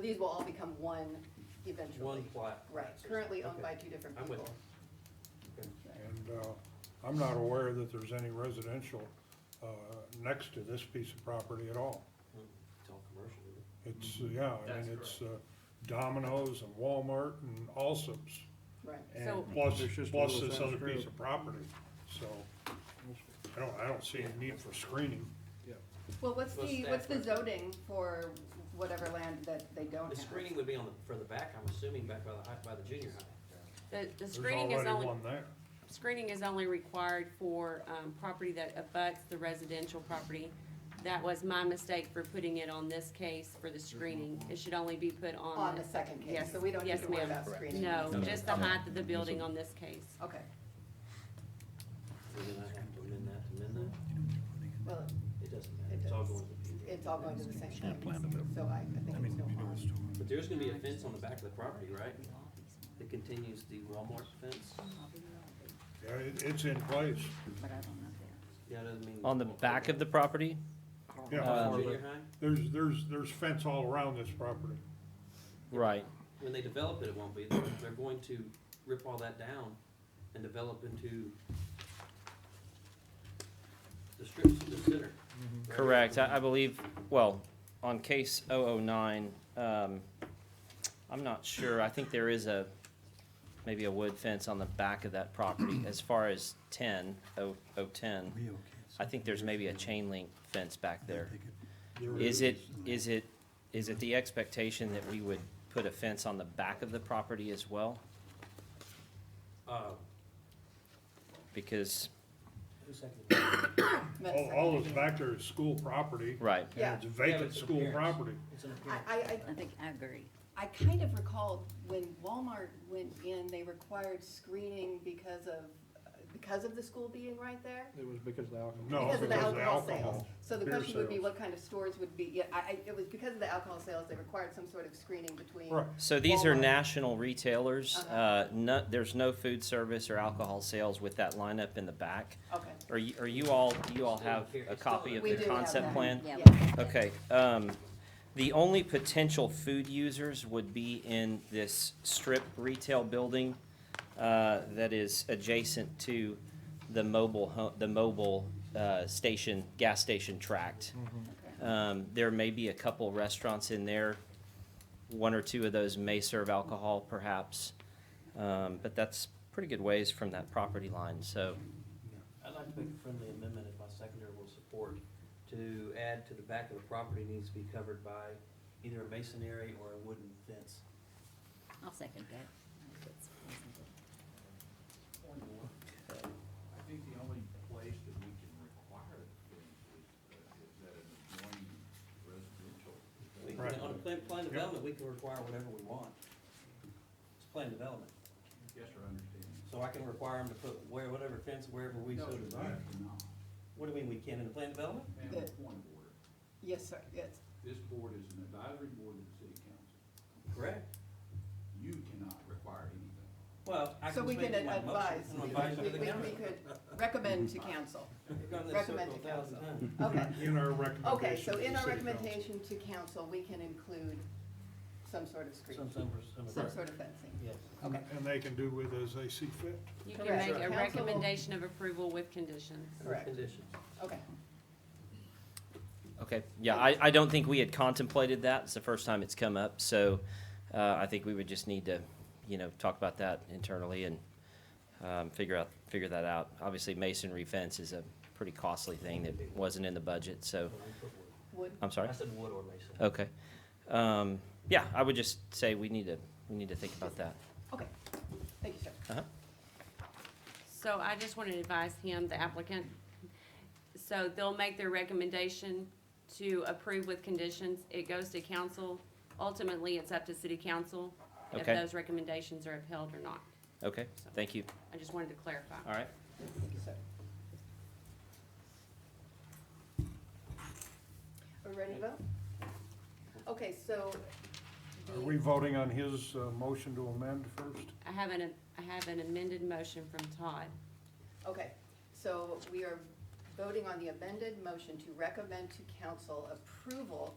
these will all become one eventually. One plat. Right, currently owned Okay. by two different I'm with people. Okay. And uh, I'm not aware that there's any residential uh, next to this piece of property at all. It's all commercial, isn't it? It's, yeah, I That's mean, it's uh, Domino's and Walmart and Allsup's. Right, So- And plus, There's just a plus little this fence other grid. piece of property, so I don't, I don't see a need for screening. well, what's Well, the, what's the Stafford. zoning for whatever land that they don't have? The screening would be on the, for the back, I'm assuming, back by the high, by the junior high. The, the There's screening is already only, one there. screening is only required for, um, property that abuts the residential property. That was my mistake for putting it on this case for the screening. It should only be put on. Mm-hmm. On the second case, Yes, so we don't need yes, to worry ma'am. about screening. No, No, just the no. height of the building on this case. Okay, We're gonna have to amend that to amend well, that, it doesn't matter, It it's all does. going to the it's all going to the same Kind of place, planned it. so I, I think there's no harm. But there's gonna be a fence on the back of the property, right? That continues the Walmart fence? Yeah, it, it's in place. Yeah, it doesn't mean. On the back of the property? Yeah, Uh, Junior high, there's, there's, there's fence all around this property. Right. when they develop it, it won't be, they're, they're going to rip all that down and develop into the strip, the center. right? Mm-hmm. Correct, I, I believe, well, on case 009, um, I'm not sure, I think there is a, maybe a wood fence on the back of that property. As far as 10, 010, I think there's maybe a chain link fence back there. There Is it, is it, is it the expectation that we would put a fence on the back of the property as well? Uh, Because, who seconded that? That's All, all that's back there is school property. right, Yeah. And it's vacant it's school appearance. property. It's an I, appearance. I, I I think, I agree. I kind of recall when Walmart went in, they required screening because of, because of the school being right there? It was because of the alcohol. No, Because of the Oh, because of the alcohol sales. alcohol, So the beer question would be sales. what kind of stores would be, yeah, I, I, it was because of the alcohol sales, they required some sort of screening between. Right. So these are Walmart. national retailers. Uh-huh. Uh, no, there's no food service or alcohol sales with that lineup in the back. Okay. Are you, are you all, do you all have a copy of We the do have that. concept plan? Yeah. Okay, um, the only potential food users would be in this strip retail building, uh, that is adjacent to the mobile ho- the mobile, uh, station, gas station tract. Um, there may be a couple restaurants in there, one or two of those may serve alcohol perhaps, um, but that's pretty good ways from that property line, so, I'd like to make a friendly amendment if my seconder will support to add to the back of the property needs to be covered by either a masonry or a wooden fence. I'll second that. I think the only place that we can require the fence is, uh, is that an adjoining residential. We- Right. On a plan, plan development, we can require whatever we want. It's plan development, Yes, sir, I understand. so I can require them to put where, whatever fence wherever we so desire. cannot. What do you mean, we can in the plan development? And a point of order, Yes, sir, yes. this board is an advisory board of the city council. Correct. You cannot require anything. Well, I So can we just can make my motion. advise, I'm we, advising to the we- we council. could recommend to council. We've gone this recommend circle a to thousand council. times. Okay, In our recommendation. okay, so to the in our city council. recommendation to council, we can include some sort of screening, Some, some, some. some sort of fencing. Yes. Okay, And they can do with as they see fit. You can Correct. make a Council will- recommendation of approval with conditions. Correct. Conditions. okay. Okay, yeah, I, I don't think we had contemplated that. It's the first time it's come up, so, uh, I think we would just need to, you know, talk about that internally and, um, figure out, figure that out. Obviously masonry fence is a pretty costly thing that wasn't in the budget, so, Would, I'm sorry? I said wood or mason. Okay. Um, yeah, I would just say we need to, we need to think about that. okay, thank you, sir. Uh-huh. So I just want to advise him, the applicant, so they'll make their recommendation to approve with conditions. It goes to council. Ultimately, it's up to city council if Okay. those recommendations are upheld or not. Okay, thank you. I just wanted to clarify. All right. Thank you, sir. Are we ready to vote? Okay, so. the- Are we voting on his uh, motion to amend first? I have an, I have an amended motion from Todd. Okay, so we are voting on the amended motion to recommend to council approval